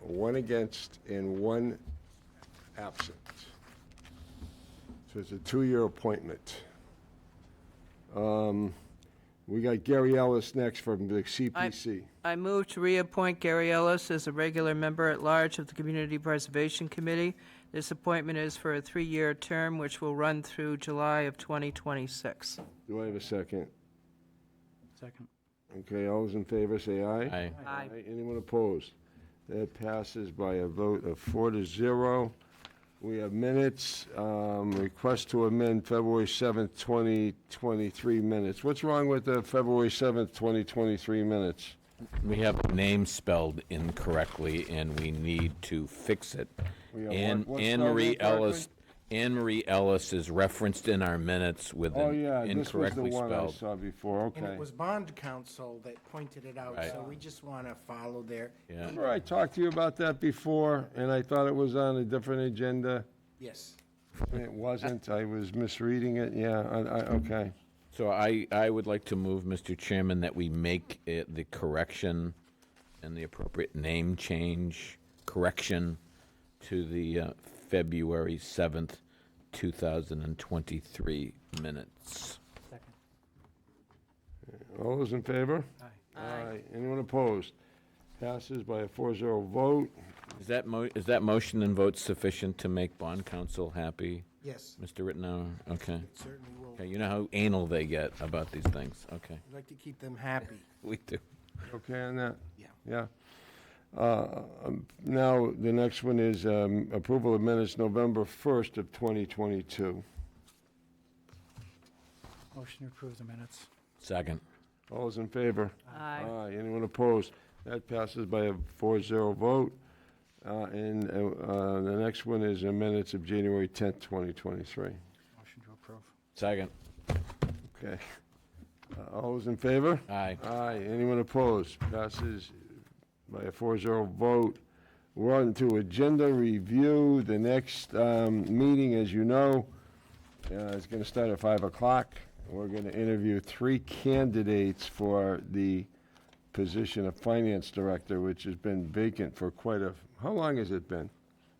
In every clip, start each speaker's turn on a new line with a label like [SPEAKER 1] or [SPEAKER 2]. [SPEAKER 1] one against, and one absent. So it's a two-year appointment. Um, We got Gary Ellis next from the CPC.
[SPEAKER 2] I move to reappoint Gary Ellis as a regular member at large of the Community Preservation Committee. This appointment is for a three-year term, which will run through July of 2026.
[SPEAKER 1] Do I have a second?
[SPEAKER 3] Second.
[SPEAKER 1] Okay, all those in favor, say aye.
[SPEAKER 4] Aye.
[SPEAKER 2] Aye.
[SPEAKER 1] Anyone opposed? That passes by a vote of four to zero. We have minutes, um, request to amend February 7th, 2023 minutes. What's wrong with the February 7th, 2023 minutes?
[SPEAKER 4] We have a name spelled incorrectly, and we need to fix it.
[SPEAKER 1] We have
[SPEAKER 4] Anne
[SPEAKER 1] what- what's
[SPEAKER 4] Anne
[SPEAKER 1] spelled
[SPEAKER 4] Marie
[SPEAKER 1] incorrectly?
[SPEAKER 4] Ellis, Anne Marie Ellis is referenced in our minutes with
[SPEAKER 1] Oh,
[SPEAKER 4] an
[SPEAKER 1] yeah, this was the
[SPEAKER 4] incorrectly
[SPEAKER 1] one I
[SPEAKER 4] spelled.
[SPEAKER 1] saw before,
[SPEAKER 5] And it
[SPEAKER 1] okay.
[SPEAKER 5] was bond counsel that pointed it out,
[SPEAKER 4] Right.
[SPEAKER 5] so we just want to follow their,
[SPEAKER 4] Yeah.
[SPEAKER 1] Remember I talked to you about that before, and I thought it was on a different agenda?
[SPEAKER 5] yes.
[SPEAKER 1] and It wasn't, I was misreading it, yeah, I, I, okay.
[SPEAKER 4] So I, I would like to move, Mr. Chairman, that we make it the correction and the appropriate name change, correction to the uh, February 7th, 2023 minutes.
[SPEAKER 3] Second.
[SPEAKER 1] All those in favor?
[SPEAKER 2] Aye.
[SPEAKER 1] Aye. Anyone opposed? Passes by a 4-0 vote.
[SPEAKER 4] Is that mo, is that motion and vote sufficient to make bond council happy,
[SPEAKER 5] Yes,
[SPEAKER 4] Mr. Rittenauer? Okay.
[SPEAKER 5] certainly will.
[SPEAKER 4] Okay, you know how anal they get about these things. Okay,
[SPEAKER 5] I'd like to keep them happy.
[SPEAKER 4] we do.
[SPEAKER 1] Okay on that?
[SPEAKER 5] Yeah.
[SPEAKER 1] Yeah. Uh, um, Now, the next one is um, approval of minutes November 1st of 2022.
[SPEAKER 3] Motion to approve the minutes.
[SPEAKER 4] Second.
[SPEAKER 1] All those in favor?
[SPEAKER 2] Aye.
[SPEAKER 1] Anyone opposed? That passes by a 4-0 vote. Uh, And uh, uh, the next one is the minutes of January 10th, 2023.
[SPEAKER 3] Motion to approve.
[SPEAKER 4] Second.
[SPEAKER 1] Okay. Uh, All those in favor?
[SPEAKER 4] Aye.
[SPEAKER 1] Aye. Anyone opposed? Passes by a 4-0 vote. We're on to agenda review. The next um, meeting, as you know, uh, is going to start at 5 o'clock. We're going to interview three candidates for the position of finance director, which has been vacant for quite a, how long has it been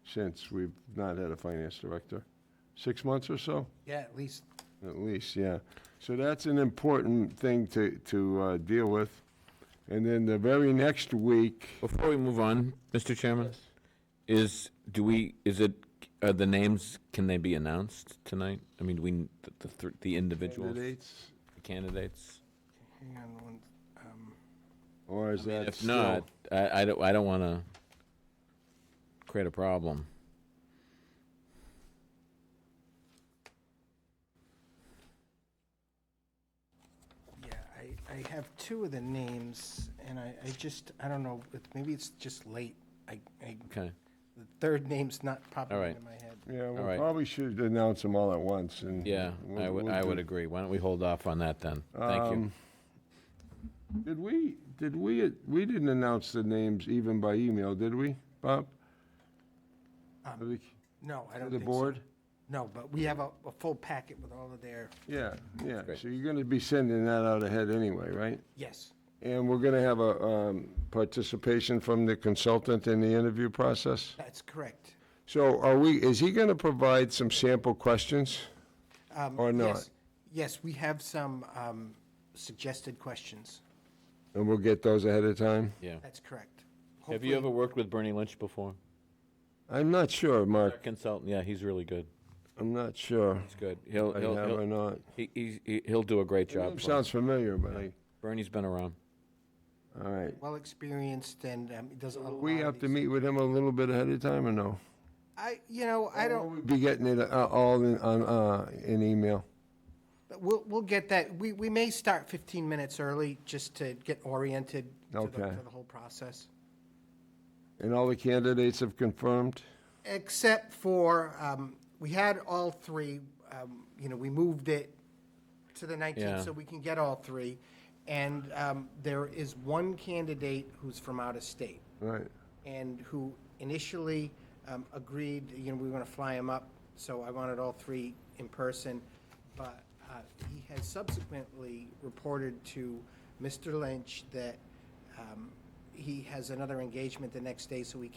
[SPEAKER 1] since we've not had a finance director? Six months or so?
[SPEAKER 5] Yeah, at least
[SPEAKER 1] At least, yeah. So that's an important thing to, to uh, deal with. And then the very next week,
[SPEAKER 4] Before we move on, Mr. Chairman, is, do we, is it, are the names, can they be announced tonight? I mean, do we, the- the, thr- the individuals,
[SPEAKER 1] candidates,
[SPEAKER 4] the candidates?
[SPEAKER 5] Hang on one, um,
[SPEAKER 1] or is that
[SPEAKER 4] If
[SPEAKER 1] still-
[SPEAKER 4] not, I, I don't, I don't want to create a problem.
[SPEAKER 5] yeah, I, I have two of the names, and I, I just, I don't know, it- maybe it's just late. I, I,
[SPEAKER 4] Okay,
[SPEAKER 5] the third name's not popping
[SPEAKER 4] All right.
[SPEAKER 5] into my head.
[SPEAKER 1] Yeah, we
[SPEAKER 4] All right.
[SPEAKER 1] probably should announce them all at once and.
[SPEAKER 4] yeah, I
[SPEAKER 1] we'll-
[SPEAKER 4] would,
[SPEAKER 1] we'll
[SPEAKER 4] I
[SPEAKER 1] do-
[SPEAKER 4] would agree. Why don't we hold off on that then? Thank you.
[SPEAKER 1] Um, Did we, did we, we didn't announce the names even by email, did we, Bob?
[SPEAKER 5] Um,
[SPEAKER 1] Of the-
[SPEAKER 5] No, I
[SPEAKER 1] of
[SPEAKER 5] don't
[SPEAKER 1] The
[SPEAKER 5] think so.
[SPEAKER 1] board?
[SPEAKER 5] No, but we have a, a full packet with all of their,
[SPEAKER 1] Yeah, yeah.
[SPEAKER 4] Great.
[SPEAKER 1] So you're going to be sending that out ahead anyway, right?
[SPEAKER 5] yes,
[SPEAKER 1] And we're going to have a um, participation from the consultant in the interview process?
[SPEAKER 5] that's correct.
[SPEAKER 1] So are we, is he going to provide some sample questions?
[SPEAKER 5] Um,
[SPEAKER 1] Or not.
[SPEAKER 5] yes. Yes, we have some um, suggested questions.
[SPEAKER 1] And we'll get those ahead of time?
[SPEAKER 4] Yeah.
[SPEAKER 5] That's correct.
[SPEAKER 4] Have you ever
[SPEAKER 5] Hopefully-
[SPEAKER 4] worked with Bernie Lynch before?
[SPEAKER 1] I'm not sure,
[SPEAKER 4] Our
[SPEAKER 1] Mark.
[SPEAKER 4] consultant, yeah, he's really good.
[SPEAKER 1] I'm not sure.
[SPEAKER 4] He's good. He'll,
[SPEAKER 1] I
[SPEAKER 4] he'll,
[SPEAKER 1] have or
[SPEAKER 4] he'll,
[SPEAKER 1] not.
[SPEAKER 4] he, he's- he, he'll do a great job. for us.
[SPEAKER 1] Sounds familiar, but I,
[SPEAKER 4] Bernie's been around.
[SPEAKER 1] all right.
[SPEAKER 5] Well experienced and um, does a lot of
[SPEAKER 1] We have to
[SPEAKER 5] these-
[SPEAKER 1] meet with him a little bit ahead of time or no?
[SPEAKER 5] I, you know, I don't,
[SPEAKER 1] We'll Be getting it uh, all in, on, uh, in email.
[SPEAKER 5] we'll, we'll get that. We, we may start 15 minutes early just to get oriented to the,
[SPEAKER 1] Okay.
[SPEAKER 5] to the whole process.
[SPEAKER 1] And all the candidates have confirmed?
[SPEAKER 5] Except for, um, we had all three, um, you know, we moved it to the
[SPEAKER 4] Yeah.
[SPEAKER 5] 19th so we can get all three. And um, there is one candidate who's from out of state.
[SPEAKER 1] Right.
[SPEAKER 5] and who initially um, agreed, you know, we were going to fly him up, so I wanted all three in person, but uh, he has subsequently reported to Mr. Lynch that um, he has another engagement the next day, so he can't